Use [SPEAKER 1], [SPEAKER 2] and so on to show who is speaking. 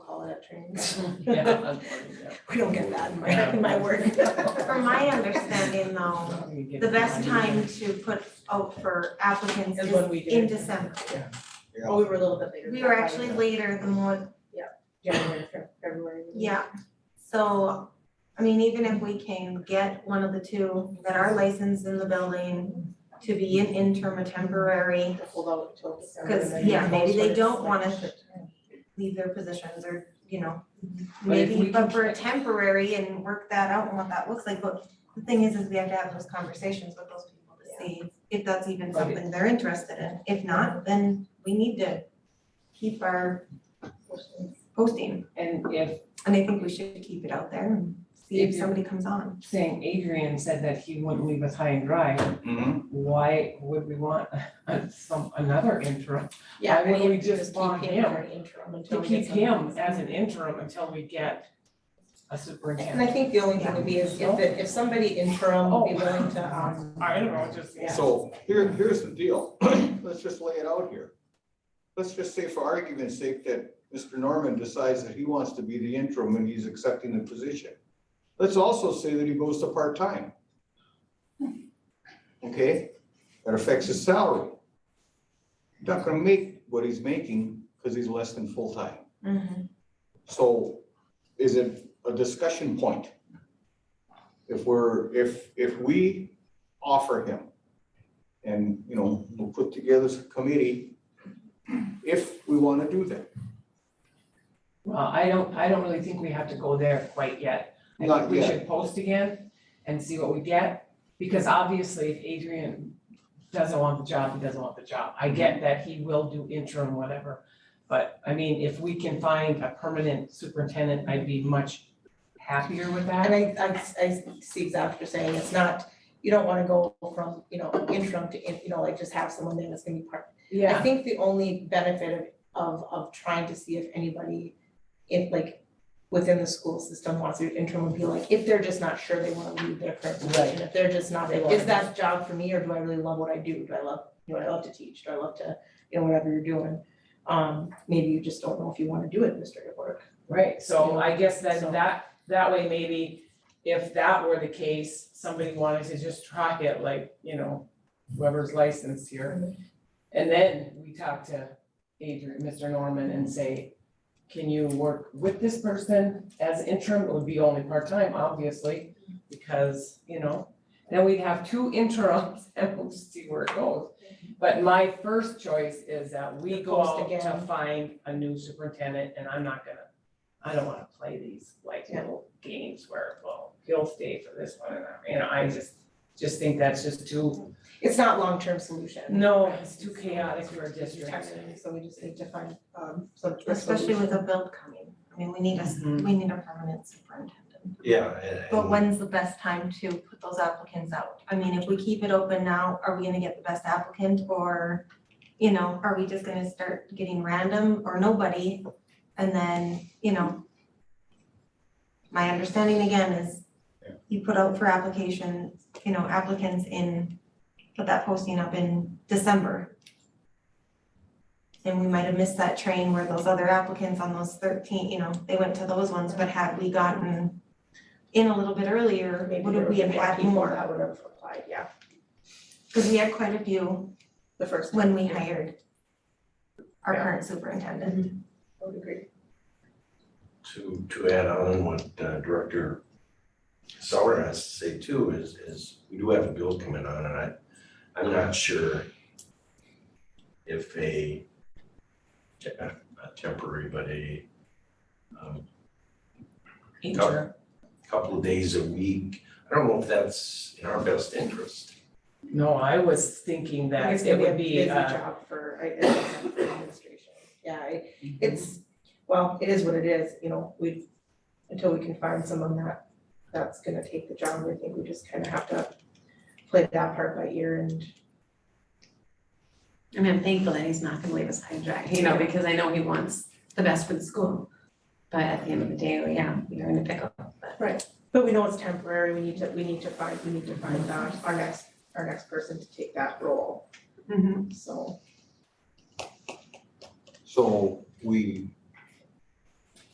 [SPEAKER 1] at trainings.
[SPEAKER 2] Yeah, that's funny, yeah.
[SPEAKER 1] We don't get that in my, in my work.
[SPEAKER 3] From my understanding though,
[SPEAKER 2] You get
[SPEAKER 3] the best
[SPEAKER 2] money.
[SPEAKER 3] time to put out for applicants
[SPEAKER 1] Is
[SPEAKER 3] is
[SPEAKER 1] when we
[SPEAKER 3] in
[SPEAKER 1] did.
[SPEAKER 3] December.
[SPEAKER 1] Well, Oh, we were a little bit later.
[SPEAKER 3] We were actually later than what,
[SPEAKER 1] January, Fe- February.
[SPEAKER 3] yeah. So, I mean, even if we can get one of the two that are licensed in the building to be an interim or temporary,
[SPEAKER 1] To Hold out till December. and
[SPEAKER 3] Cause,
[SPEAKER 1] then
[SPEAKER 3] yeah, maybe
[SPEAKER 1] post
[SPEAKER 3] they
[SPEAKER 1] it.
[SPEAKER 3] don't wanna leave their positions or, you know,
[SPEAKER 2] But if
[SPEAKER 3] maybe,
[SPEAKER 2] we
[SPEAKER 3] but
[SPEAKER 2] can-
[SPEAKER 3] for a temporary and work that out and what that looks like, but the thing is, is we have to have those conversations with those people to see if that's even
[SPEAKER 2] Right.
[SPEAKER 3] something they're interested in. If not, then we need to keep our posting,
[SPEAKER 2] And if,
[SPEAKER 3] and I think we should keep it out there and see if
[SPEAKER 2] If you-
[SPEAKER 3] somebody comes on.
[SPEAKER 2] saying Adrian said that he wouldn't leave us high and dry,
[SPEAKER 4] Mhm.
[SPEAKER 2] why would we want a- some, another interim?
[SPEAKER 1] Yeah,
[SPEAKER 2] Why
[SPEAKER 1] I
[SPEAKER 2] wouldn't
[SPEAKER 1] mean,
[SPEAKER 2] we
[SPEAKER 1] if you
[SPEAKER 2] just
[SPEAKER 1] just
[SPEAKER 2] want
[SPEAKER 1] keep him
[SPEAKER 2] him
[SPEAKER 1] on interim until
[SPEAKER 2] To
[SPEAKER 1] we get
[SPEAKER 2] keep
[SPEAKER 1] something
[SPEAKER 2] him
[SPEAKER 1] else.
[SPEAKER 2] as an interim until we get a
[SPEAKER 1] And I
[SPEAKER 2] superintendent.
[SPEAKER 1] think the only thing would be is if, it- if somebody interim
[SPEAKER 2] Oh.
[SPEAKER 1] would be willing to, um,
[SPEAKER 2] I don't know, just, uh, yeah.
[SPEAKER 4] So here, here's the deal. Let's just lay it out here. Let's just say for argument's sake that Mr. Norman decides that he wants to be the interim and he's accepting the position. Let's also say that he goes to part-time. Okay, that affects his salary. Not gonna make what he's making because he's less than full-time.
[SPEAKER 1] Mm-hmm.
[SPEAKER 4] So is it a discussion point? If we're, if, if we offer him and, you know, we'll put together a committee if we want to do that.
[SPEAKER 2] Well, I don't, I don't really think we have to go there quite yet. I
[SPEAKER 4] Not
[SPEAKER 2] think we
[SPEAKER 4] yet.
[SPEAKER 2] should post again and see what we get, because obviously if Adrian doesn't want the job, he doesn't want the job. I get that he will do interim, whatever. But I mean, if we can find a permanent superintendent, I'd be much happier with
[SPEAKER 1] and
[SPEAKER 2] that.
[SPEAKER 1] I, I, I see exactly what you're saying, it's not, you don't wanna go from, you know, interim to, in- you know, like just have someone there that's gonna be part I
[SPEAKER 2] Yeah,
[SPEAKER 1] think the only benefit of, of, of trying to see if anybody, if like, within the school system wants to do interim would be like, if they're just not sure they wanna leave their current position, if they're just not, is that job for me, or do I really love what I do? Do I love, you know, I love to teach, do I love to, you know, whatever you're doing? Um, maybe you just don't know if you wanna do administrative work.
[SPEAKER 2] right, so I guess
[SPEAKER 1] So-
[SPEAKER 2] then that, that way maybe if that were the case, somebody wanted to just try it like, you know, whoever's licensed here. And then we talk to Adrian, Mr. Norman, and say, can you work with this person as interim? It would be only part-time, obviously, because, you know, then we'd have two interims and we'll just see where it goes. But my first choice is that we
[SPEAKER 1] To
[SPEAKER 2] go
[SPEAKER 1] post
[SPEAKER 2] out to
[SPEAKER 1] again.
[SPEAKER 2] find a new superintendent, and I'm not gonna, I don't wanna play these like
[SPEAKER 1] Yeah.
[SPEAKER 2] little games where, well, he'll stay for this one, and I- you know, I just, just think that's just too,
[SPEAKER 1] It's not long-term solution.
[SPEAKER 2] no, it's too chaotic for a district.
[SPEAKER 1] So we just need to find, um, some.
[SPEAKER 3] Especially with a build coming, I mean, we need a,
[SPEAKER 2] Mhm.
[SPEAKER 3] we need a permanent superintendent.
[SPEAKER 5] Yeah, Uh, and-
[SPEAKER 3] But
[SPEAKER 5] and
[SPEAKER 3] when's the best time to put those applicants out? I mean, if we keep it open now, are we gonna get the best applicant or, you know, are we just gonna start getting random or nobody? And then, you know, my understanding again is you put out for application, you know, applicants in, put that posting up in December. And we might have missed that train where those other applicants on those thirteen, you know, they went to those ones, but had we gotten in a little bit earlier,
[SPEAKER 1] Maybe
[SPEAKER 3] would
[SPEAKER 1] there
[SPEAKER 3] we
[SPEAKER 1] would
[SPEAKER 3] have
[SPEAKER 1] be more
[SPEAKER 3] had
[SPEAKER 1] people
[SPEAKER 3] more?
[SPEAKER 1] That would have applied, yeah,
[SPEAKER 3] Cause we had quite a few
[SPEAKER 1] the first.
[SPEAKER 3] when we hired our
[SPEAKER 1] Yeah.
[SPEAKER 3] current superintendent.
[SPEAKER 1] I would agree.
[SPEAKER 5] to, to add on what uh, Director Sauer has to say too is, is we do have a bill coming on and I, I'm not sure if a, te- not temporary, but a um,
[SPEAKER 2] Interim.
[SPEAKER 5] couple of days a week, I don't know if that's in our best interest.
[SPEAKER 2] No, I was thinking
[SPEAKER 1] I guess
[SPEAKER 2] that it
[SPEAKER 1] maybe a
[SPEAKER 2] would
[SPEAKER 1] busy
[SPEAKER 2] be, uh,
[SPEAKER 1] job for, I guess, for administration. Yeah, I-
[SPEAKER 2] Mm-hmm.
[SPEAKER 1] it's, well, it is what it is, you know, we, until we can find someone that, that's gonna take the job, I think we just kind of have to play that part by ear and.
[SPEAKER 6] And I'm thankful that he's not gonna leave us high and dry, you know, because I know he wants the best for the school. But at the end of the day, well, yeah, you're in a pickle, but
[SPEAKER 1] But we know it's temporary, we need to, we need to find, we need to find uh, our next, our next person to take that role, so.
[SPEAKER 4] So we